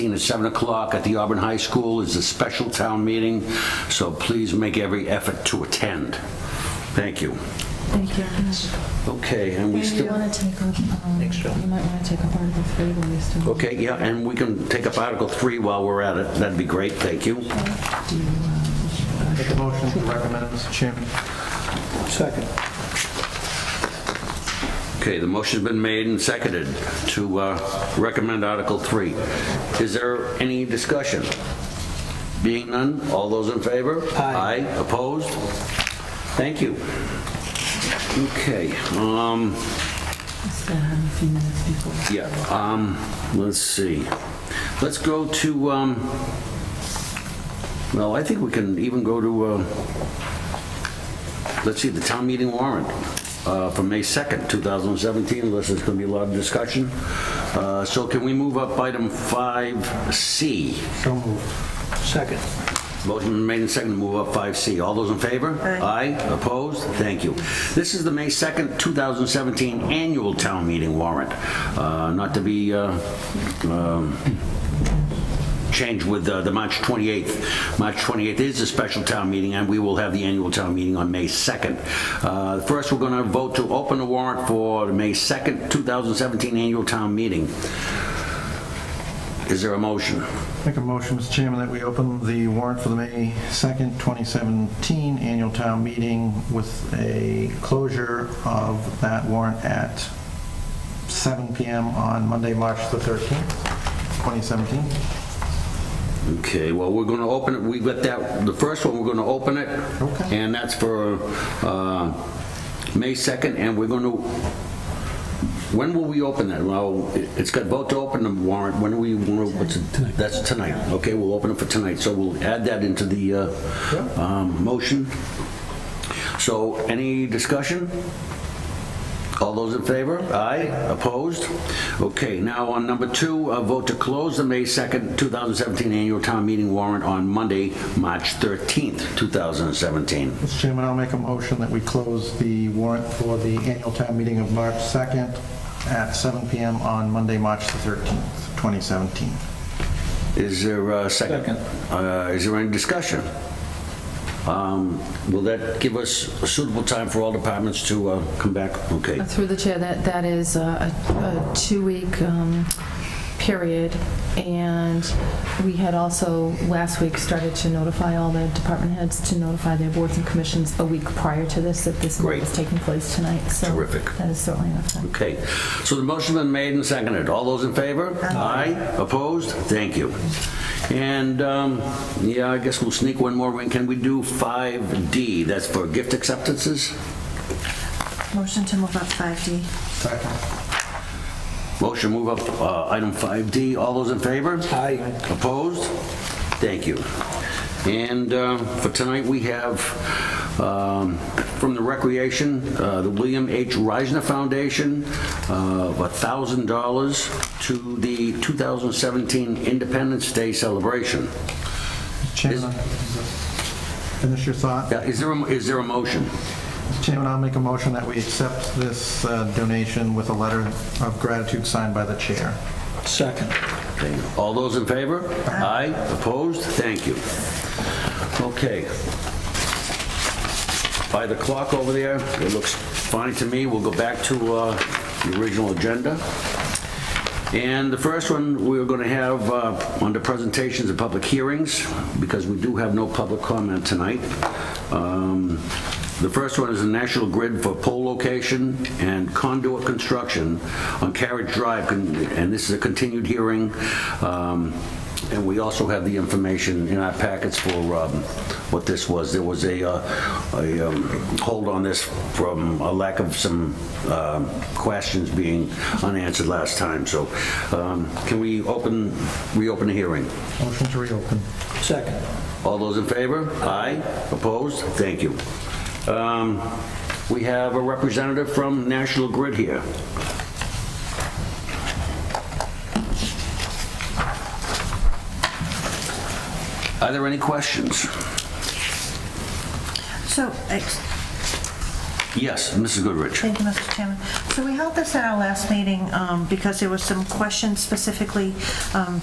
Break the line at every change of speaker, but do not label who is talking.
meeting at 7 o'clock at the Auburn High School is a special town meeting, so please make every effort to attend. Thank you.
Thank you.
Okay, and we
Maybe you
still,
want to take up, um, you might want to take up Article 3 while we still.
okay, yeah, and we can take up Article 3 while we're at it. That'd be great, thank you.
Make a motion to recommend, Mr. Chairman.
Second.
Okay, the motion's been made and seconded to uh, recommend Article 3. Is there any discussion? Being none, all those in favor?
Aye.
opposed? Thank you. Okay, um,
Still have um, a few minutes before.
yeah, um, let's see. Let's go to, um, well, I think we can even go to, uh, let's see, the town meeting warrant uh, for May 2nd, 2017, unless there's going to be a lot of discussion. Uh, So can we move up item 5C?
So moved. Second.
Motion been made and seconded to move up 5C. All those in favor? Aye. opposed? Thank you. This is the May 2nd, 2017 annual town meeting warrant, Uh, not to be uh, um, changed with uh, the March 28th. March 28th is a special town meeting, and we will have the annual town meeting on May 2nd. Uh, First, we're going to vote to open the warrant for the May 2nd, 2017 annual town meeting. Is there a motion?
Make a motion, Mr. Chairman, that we open the warrant for the May 2nd, 2017 annual town meeting with a closure of that warrant at 7 PM on Monday, March the 13th, 2017.
Okay, well, we're going to open it, we've got that, the first one, we're going to open it.
Okay.
And that's for uh, May 2nd, and we're going to, when will we open that? Well, it- it's got vote to open the warrant, when do we, want to? what's it? That's tonight, okay, we'll open it for tonight, so we'll add that into the uh, um, motion. So, any discussion? All those in favor? Aye. Opposed? Okay, now on number two, a vote to close the May 2nd, 2017 annual town meeting warrant on Monday, March 13th, 2017.
Mr. Chairman, I'll make a motion that we close the warrant for the annual town meeting of March 2nd at 7 PM on Monday, March the 13th, 2017.
Is there a second? Uh, Is there any discussion? Um, Will that give us a suitable time for all departments to uh, come back? Okay.
Through the chair, that, that is uh, a, a two-week um, period, and we had also, last week, started to notify all the department heads to notify their boards and commissions a week prior to this, that this
Great.
meeting is taking place tonight, so.
Terrific.
That is certainly enough time.
Okay, so the motion's been made and seconded. All those in favor? Aye. Opposed? Thank you. And, um, yeah, I guess we'll sneak one more in. Can we do 5D? That's for gift acceptances?
Motion to move up 5D.
Second.
Motion move up uh, item 5D. All those in favor?
Aye.
Opposed? Thank you. And uh, for tonight, we have um, from the Recreation, uh, the William H. Reisner Foundation, uh, of $1,000 to the 2017 Independence Day celebration.
Chairman, finish your thought.
Now, Is there a- is there a motion?
Chairman, I'll make a motion that we accept this uh, donation with a letter of gratitude signed by the chair.
Second.
Okay. All those in favor? Aye. Opposed? Thank you. Okay. By the clock over there, it looks fine to me. We'll go back to uh, the original agenda. And the first one, we're going to have uh, under presentations and public hearings, because we do have no public comment tonight. Um, The first one is the National Grid for pole location and conduit construction on Carriage Drive, con- and this is a continued hearing. Um, And we also have the information in our packets for um, what this was. There was a uh, a, um, hold on this from a lack of some um, questions being unanswered last time, so um, can we open, reopen the hearing?
Motion to reopen.
Second.
All those in favor? Aye. Opposed? Thank you. Um, We have a representative from National Grid here. Are there any questions?
So, ex-
Yes, Mrs. Goodrich.
Thank you, Mr. Chairman. So we held this at our last meeting um, because there were some questions specifically um,